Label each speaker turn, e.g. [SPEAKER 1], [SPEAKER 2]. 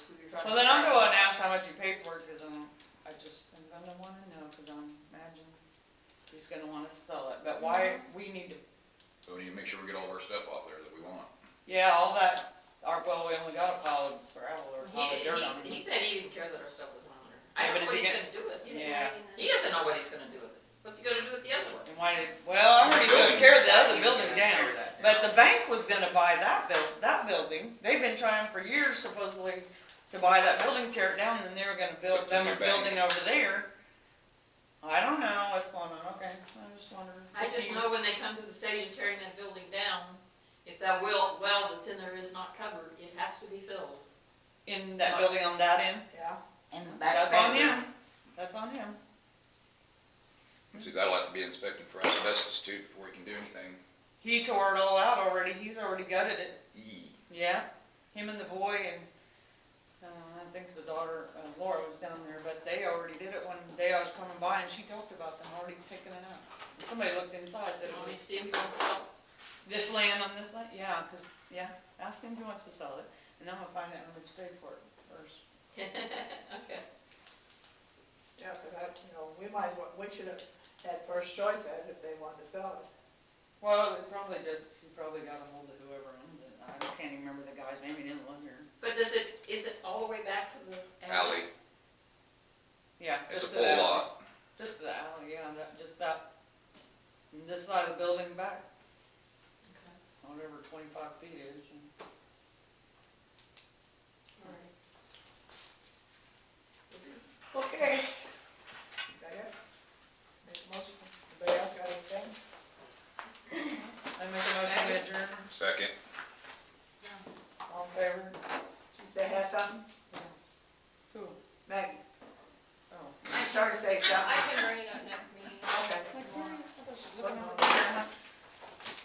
[SPEAKER 1] cut.
[SPEAKER 2] Well, then I'll go and ask how much you paid for it, cause I'm, I just, I'm gonna wanna know, cause I'm imagine he's gonna wanna sell it, but why, we need to,
[SPEAKER 3] So we need to make sure we get all of our stuff off there that we want.
[SPEAKER 2] yeah, all that, our, well, we only got a pile of gravel or a
[SPEAKER 4] He,
[SPEAKER 2] pile of dirt on
[SPEAKER 4] he's- he
[SPEAKER 2] it.
[SPEAKER 4] said he didn't care that our stuff was on there.
[SPEAKER 2] Yeah,
[SPEAKER 4] I
[SPEAKER 2] but
[SPEAKER 4] don't know
[SPEAKER 2] is
[SPEAKER 4] what
[SPEAKER 2] he
[SPEAKER 4] he's
[SPEAKER 2] gonna-
[SPEAKER 4] gonna do with it.
[SPEAKER 2] Yeah,
[SPEAKER 4] He doesn't know what he's gonna do with it. What's he gonna do with the other one?
[SPEAKER 2] and why did, well, I'm already gonna tear the other
[SPEAKER 4] He's
[SPEAKER 2] building
[SPEAKER 4] gonna
[SPEAKER 2] down,
[SPEAKER 4] tear that
[SPEAKER 2] but the bank was gonna buy that buil, that building, they've been trying for years supposedly to buy that building, tear it down, and then they were gonna build
[SPEAKER 3] Put the
[SPEAKER 2] them
[SPEAKER 3] new
[SPEAKER 2] a
[SPEAKER 3] bank.
[SPEAKER 2] building over there. I don't know what's going on, okay, I just wondered.
[SPEAKER 4] I just know when they come to the stadium tearing that building down, if that well, well that's in there is not covered, it has to be filled.
[SPEAKER 2] In that building on that end?
[SPEAKER 1] Yeah,
[SPEAKER 5] in the back.
[SPEAKER 2] That's on
[SPEAKER 5] bedroom.
[SPEAKER 2] him. That's on him.
[SPEAKER 3] See, that'll have to be inspected for asbestos too before we can do anything.
[SPEAKER 2] He tore it all out already. He's already gutted it.
[SPEAKER 3] Eee.
[SPEAKER 2] Yeah, him and the boy and, uh, I think the daughter, uh, Laura was down there, but they already did it one day. I was coming by and she talked about them already taking it out. Somebody looked inside,
[SPEAKER 4] So
[SPEAKER 2] said,
[SPEAKER 4] you
[SPEAKER 2] it
[SPEAKER 4] want me to
[SPEAKER 2] was
[SPEAKER 4] see if he wants to help?
[SPEAKER 2] this land on this land? Yeah, 'cause yeah, ask him if he wants to sell it and I'm gonna find out how much he paid for it first.
[SPEAKER 4] Okay.
[SPEAKER 1] yeah, but that, you know, we might as well, we should have had first choice at it if they wanted to sell it.
[SPEAKER 2] Well, it probably just, he probably got ahold of whoever owned it. I can't even remember the guy's name. He didn't live here.
[SPEAKER 4] But does it, is it all the way back to the
[SPEAKER 3] Alley,
[SPEAKER 4] alley?
[SPEAKER 2] Yeah,
[SPEAKER 3] it's a
[SPEAKER 2] just uh, to
[SPEAKER 3] full
[SPEAKER 2] that.
[SPEAKER 3] lot.
[SPEAKER 2] Just the alley, yeah, that, just that, this side of the building back,
[SPEAKER 4] Okay.
[SPEAKER 2] whatever twenty-five feet is. and-
[SPEAKER 4] All right.
[SPEAKER 1] Okay. That it? Make a motion. Anybody else got anything?
[SPEAKER 2] I make a motion to adjourn,
[SPEAKER 3] Second.
[SPEAKER 2] all in favor?
[SPEAKER 1] You say had something?
[SPEAKER 2] Who?
[SPEAKER 1] Maggie,
[SPEAKER 2] Oh.
[SPEAKER 1] I'm sorry to say
[SPEAKER 4] I
[SPEAKER 1] something.
[SPEAKER 4] can bring it